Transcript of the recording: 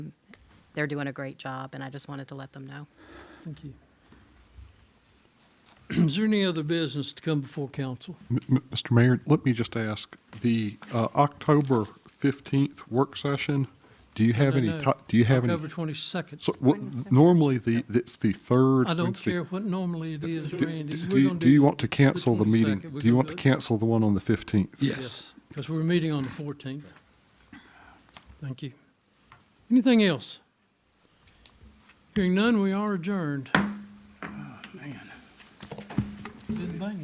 they're doing a great job, and I just wanted to let them know. Thank you. Is there any other business to come before council? M- Mr. Mayor, let me just ask, the uh, October 15th work session, do you have No, any, no. ti- do you have any? October 22nd. So what- normally, the, it's the third. I don't Wednesday. care what normally it is, Do- Randy. do We're you- gonna Do you want to cancel the meeting? 22nd. We're Do you gonna want do to it. cancel the one on the 15th? Yes, because we're meeting on the 14th. Thank you. Anything else? Hearing none, we are adjourned.